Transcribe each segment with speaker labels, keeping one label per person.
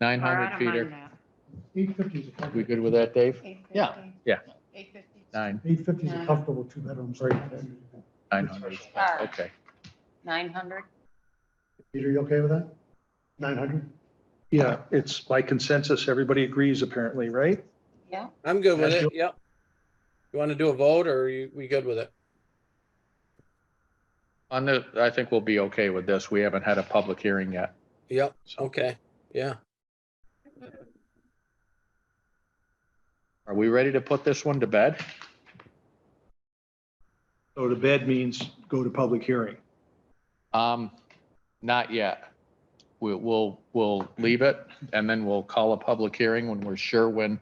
Speaker 1: nine
Speaker 2: Or I
Speaker 1: hundred
Speaker 2: don't
Speaker 1: feeder.
Speaker 2: mind that.
Speaker 3: Eight fifty is a
Speaker 1: We
Speaker 3: comfortable,
Speaker 1: good with that, Dave?
Speaker 4: Yeah.
Speaker 1: Yeah.
Speaker 2: Eight fifty.
Speaker 1: Nine,
Speaker 3: eight fifty is a
Speaker 2: Nine.
Speaker 3: comfortable two-bedroom, sorry.
Speaker 1: nine hundred,
Speaker 2: All right,
Speaker 1: okay.
Speaker 2: nine hundred.
Speaker 3: Peter, you okay with that? Nine hundred?
Speaker 5: Yeah, it's by consensus, everybody agrees apparently, right?
Speaker 2: Yeah,
Speaker 6: I'm good with
Speaker 5: Yes,
Speaker 6: it, yep. You want to do a vote or are you, we good with it?
Speaker 1: On the, I think we'll be okay with this. We haven't had a public hearing yet.
Speaker 6: Yep,
Speaker 1: So-
Speaker 6: okay, yeah.
Speaker 1: Are we ready to put this one to bed?
Speaker 5: Go to bed means go to public hearing.
Speaker 1: Um, not yet. We'll, we'll, we'll leave it and then we'll call a public hearing when we're sure when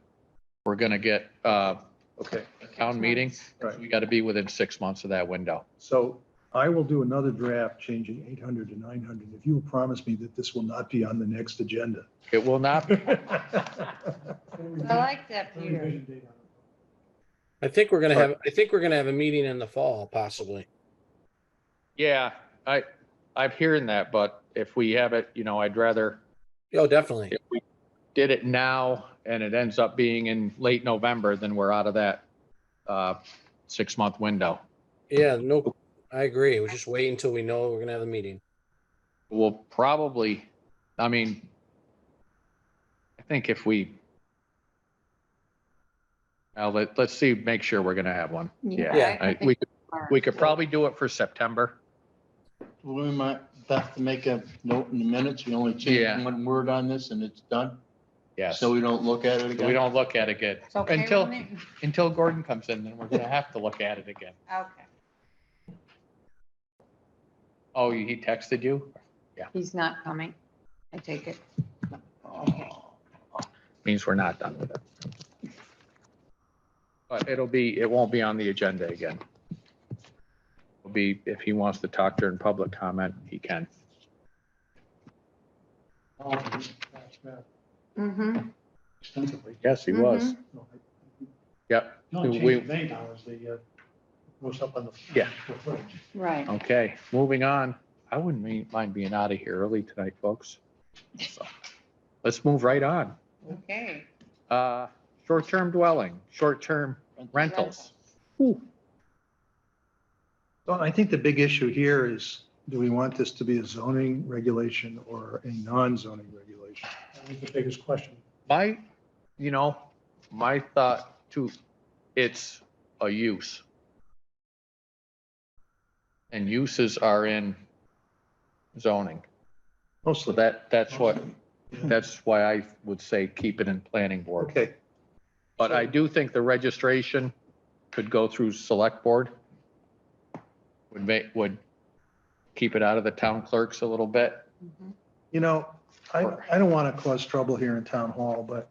Speaker 1: we're gonna get, uh,
Speaker 5: Okay,
Speaker 1: a town meeting.
Speaker 5: Right.
Speaker 1: We gotta be within six months of that window.
Speaker 5: so I will do another draft changing eight hundred to nine hundred if you will promise me that this will not be on the next agenda.
Speaker 1: It will not, be
Speaker 2: I like that, Peter.
Speaker 6: I think we're gonna have, I think we're gonna have a meeting in the fall possibly.
Speaker 1: yeah, I, I'm hearing that, but if we have it, you know, I'd rather
Speaker 6: Oh, definitely.
Speaker 1: if we did it now and it ends up being in late November, then we're out of that uh, six-month window.
Speaker 6: Yeah, no, I agree. We'll just wait until we know we're gonna have a meeting.
Speaker 1: We'll probably, I mean, I think if we, now let, let's see, make sure we're gonna have one. Yeah.
Speaker 6: Yeah.
Speaker 2: I- I
Speaker 1: I-
Speaker 2: think
Speaker 1: We, could-
Speaker 2: we're-
Speaker 1: we could probably do it for September.
Speaker 7: We might have to make a note in the minutes. We only
Speaker 1: Yeah.
Speaker 7: change one word on this and it's done.
Speaker 1: Yes.
Speaker 7: So
Speaker 1: So
Speaker 7: we don't look at it again.
Speaker 1: we don't look at it again.
Speaker 2: It's okay with
Speaker 1: Until,
Speaker 2: me?
Speaker 1: until Gordon comes in, then we're gonna have to look at it again.
Speaker 2: Okay,
Speaker 1: Oh, he texted you?
Speaker 2: he's not coming. I take it.
Speaker 1: means we're not done with it. But it'll be, it won't be on the agenda again. It'll be, if he wants to talk during public comment, he can.
Speaker 2: Mm-hmm.
Speaker 3: Extensively.
Speaker 1: Yes, he was.
Speaker 3: No, I-
Speaker 1: Yep,
Speaker 3: The only
Speaker 1: We-
Speaker 3: change made now is the, uh, goes up on the.
Speaker 1: Yeah.
Speaker 3: the footage.
Speaker 2: Right.
Speaker 1: okay, moving on. I wouldn't mean- mind being out of here early tonight, folks. So, Let's move right on.
Speaker 2: Okay.
Speaker 1: Uh, short-term dwelling, short-term rentals.
Speaker 5: So I think the big issue here is, do we want this to be a zoning regulation or a non-zoning regulation?
Speaker 3: That was the biggest question.
Speaker 1: My, you know, my thought too, it's a use. And uses are in zoning. So
Speaker 5: Mostly.
Speaker 1: that, that's what, that's why I would say keep it in planning board.
Speaker 5: Okay,
Speaker 1: But I do think the registration could go through select board. Would make, would keep it out of the town clerks a little bit.
Speaker 2: Mhm.
Speaker 5: you know, I, I don't want to cause trouble here in town hall, but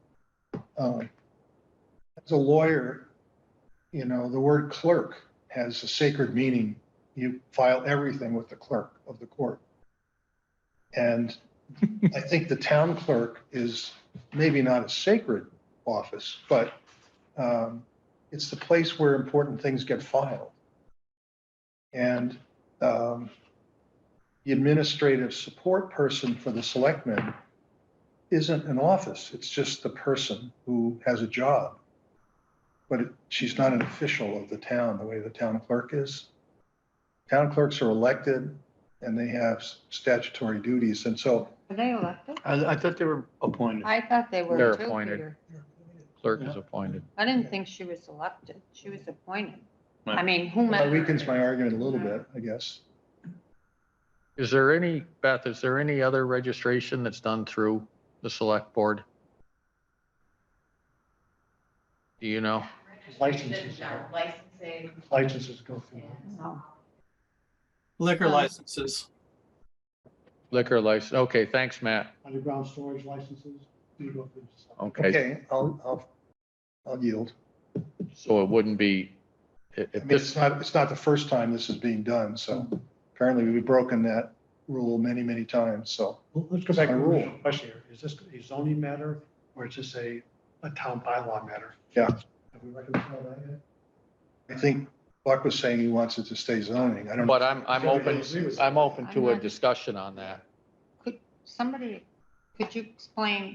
Speaker 5: um, as a lawyer, you know, the word clerk has a sacred meaning. You file everything with the clerk of the court. And I think the town clerk is maybe not a sacred office, but um, it's the place where important things get filed. And um, the administrative support person for the selectmen isn't an office, it's just the person who has a job. But it- she's not an official of the town, the way the town clerk is. Town clerks are elected and they have statutory duties, and so
Speaker 2: Are they elected?
Speaker 7: I, I thought they were appointed.
Speaker 2: I thought they were.
Speaker 1: They're
Speaker 2: too,
Speaker 1: appointed.
Speaker 2: Peter.
Speaker 1: Clerk is appointed.
Speaker 2: I didn't think she was elected. She was appointed. I
Speaker 7: Right.
Speaker 2: mean,
Speaker 5: that
Speaker 2: whomever.
Speaker 5: weakens my argument a little bit, I guess.
Speaker 1: Is there any, Beth, is there any other registration that's done through the select board? Do you know?
Speaker 3: Licenses.
Speaker 8: Licensing.
Speaker 3: Licenses go through.
Speaker 2: No.
Speaker 9: Liquor
Speaker 2: Um,
Speaker 9: licenses.
Speaker 1: Liquor license, okay, thanks, Matt.
Speaker 3: Underground storage licenses, you go through.
Speaker 1: Okay,
Speaker 5: Okay, I'll, I'll, I'll yield.
Speaker 1: so it wouldn't be, i-
Speaker 5: I
Speaker 1: if
Speaker 5: mean, it's
Speaker 1: this,
Speaker 5: not, it's not the first time this is being done, so apparently we've broken that rule many, many times, so.
Speaker 3: Well, Let's go back to the
Speaker 5: By rule.
Speaker 3: original question here. Is this a zoning matter or is this a, a town bylaw matter?
Speaker 5: Yeah.
Speaker 3: Have we reconciled that yet?
Speaker 5: I think Buck was saying he wants it to stay zoning. I don't.
Speaker 1: but I'm, I'm
Speaker 3: Everybody
Speaker 1: open,
Speaker 3: agree with that?
Speaker 1: I'm open
Speaker 2: I'm
Speaker 1: to a
Speaker 2: not-
Speaker 1: discussion on that.
Speaker 2: Somebody, could you explain